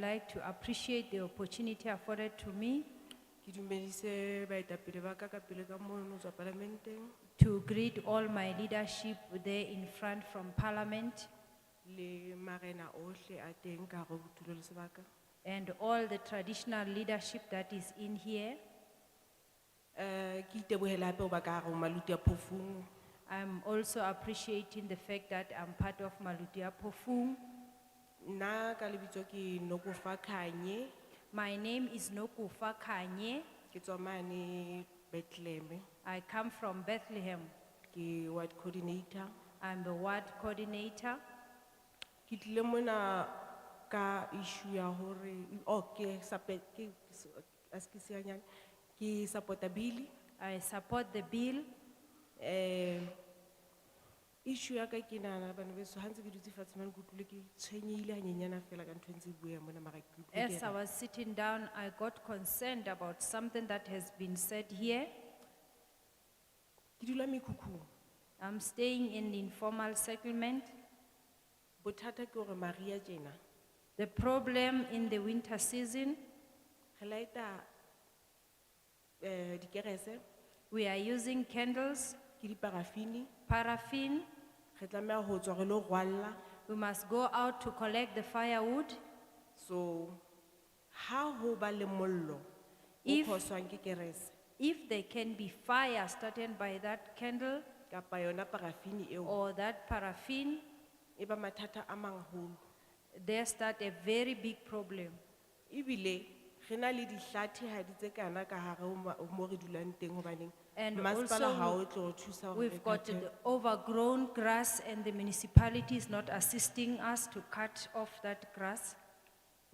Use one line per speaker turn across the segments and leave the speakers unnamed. like to appreciate the opportunity afforded to me
Ki dumedise baetapele ba ka ka pele ka mono tswa parlamenteng
to greet all my leadership there in front from Parliament
le marena ohle a teng ka hare ho tulo le sebaka.
and all the traditional leadership that is in here.
Eh ki itebohela hape ho ba ka hare ho maluti a phofung.
I'm also appreciating the fact that I'm part of Maludia Pofung.
Nna ka lebitso ke Nokufa Khanye,
My name is Nokufa Kanye.
ke tswa mane Bethlehem,
I come from Bethlehem.
ke ward coordinator.
I'm the ward coordinator.
Ke tlile mona ka issue ya hore, oh ke sape, ke, askisianyana, ke supporta bill.
I support the bill.
Eh, issue ya ka ke nahana bana beso, ha ntse ke dutse fatshe mane ke utlwile ke tshwenyehile hanyenyana feela ka ntho e ntse e bueha mona mara ke utlwile ke
As I
re-
was sitting down, I got concerned about something that has been said here.
Ke dula mekhukhung.
I'm staying in informal settlement.
Bothata ke hore Maria tjena,
The problem in the winter season,
re light-a, eh, dikerese,
we are using candles,
ke diparafini,
paraffin.
re tlameha ho tswa re lo rwalla.
We must go out to collect the firewood.
So, ha ho ba le mollo, o
If-
phoswang ke kerese,
If there can be fire started by that candle
kapa yona parafini eo,
or that paraffin,
e ba mathata a mangholo.
there start a very big problem.
Ibile, rena le dihlathi ha di tse kana ka hare ho ma- ho mo re dulang teng hobaneng.
And
masepala
also
ha
we-
o tlo re thusa hore re
We've got
phethe.
the overgrown grass and the municipality is not assisting us to cut off that grass.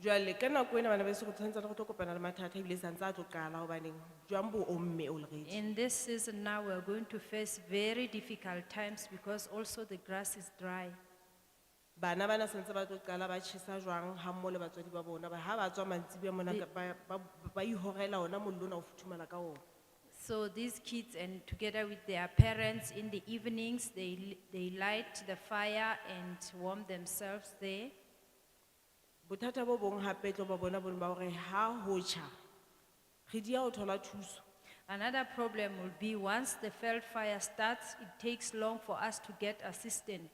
Jwale, ka nako ena bana beso re tshwantsane re tlo kopana le mathata ebile santse a tlo qala hobaneng jwang bo omme already.
In this season now, we're going to face very difficult times because also the grass is dry.
Bana bana santse ba tlo qala ba tjhesa jwang ha mmoho le batswadi ba bona ba ha ba tswa mantsibuya mona
Di-
ka- ba ba ba ihorela ona mollo ona o futhumala ka ona.
So these kids and together with their parents in the evenings, they, they light the fire and warm themselves there.
Bothata bo bong hape e tlo ba bona bona ba hore ha ho tjha re dia ho thola thuso.
Another problem will be once the felt fire starts, it takes long for us to get assistance.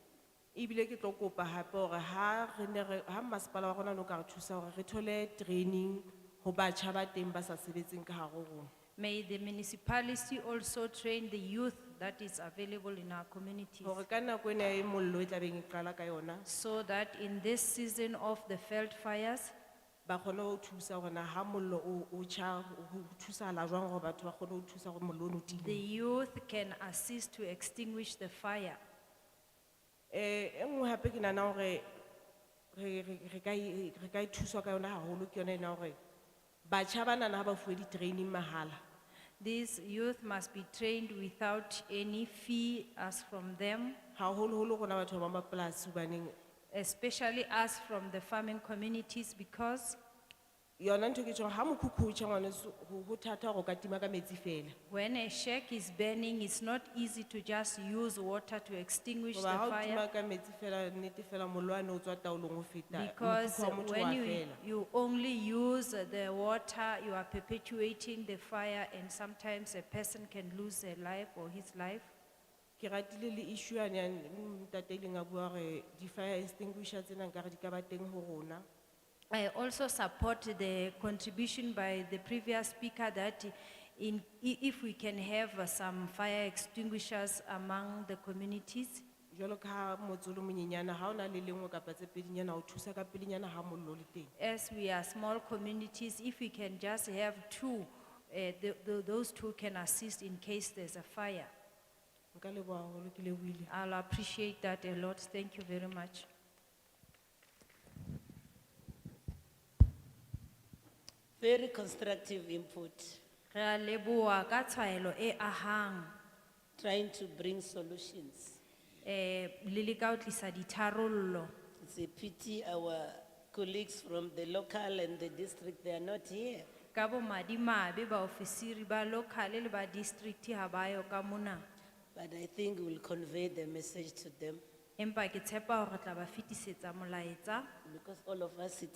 Ibile ke tlo kopa hape hore ha re ne re ha masepala wa rona no ka re thusa hore re thole training ho batjha ba teng ba sa sebetseng ka hare ho rona.
May the municipality also train the youth that is available in our communities
Hore ka nako ena e mollo e tlabeng e qala ka yona
so that in this season of the felt fires,
ba kgone ho thusa hore na ha mollo o o tjha ho ho thusahala jwang hore batho ba kgone ho thusa hore mollo ono
the
time.
youth can assist to extinguish the fire.
Eh e nngwe hape ke nahana hore re re re ka e- re ka e thuswa ka yona haholo ke yona ena hore batjha bana na ha ba fuwe di-training mahala.
These youth must be trained without any fee as from them,
Haholoholo rona batho ba mapolasi hobaneng
especially us from the farming communities because
yona ntho e ke tjhong ha mokhukhu o tjha ngwaneso ho ho thata hore o ka tima ka metsi fela.
when a shack is burning, it's not easy to just use water to extinguish the
Hoba ha o
fire.
tima ka metsi fela nnete fela mollo wane o tswa taolong ho feta.
Because
mokhukhu wa motho
when
wa
you,
fela.
you only use the water, you are perpetuating the fire and sometimes a person can lose their life or his life.
Ke ratile le issue yane ya ntate ile nga bua re di fire extinguisher tsena nkare di ka ba teng ho rona.
I also support the contribution by the previous speaker that in, i- if we can have uh, some fire extinguishers among the communities.
Jwalo ka ha motse o le monyenyana ha ona le lengwe kapa tse pedinyana o thusa ka pedinyana ha mollo o le teng.
As we are small communities, if we can just have two, uh, th- th- those two can assist in case there's a fire.
Nka leboha haholo ke lebohile.
I'll appreciate that a lot. Thank you very much.
Very constructive input,
Re a leboha ka tshwaelo e ahang,
trying to bring solutions.
eh, le leka ho tlisa ditharollo.
It's a pity our colleagues from the local and the district, they are not here.
Ka bomadimabe baofisiri ba local le ba district ha bayo ka mona.
But I think we'll convey the message to them
Empa ke tshepa hore re tla ba fetisetsa molaetsa
because all of us sit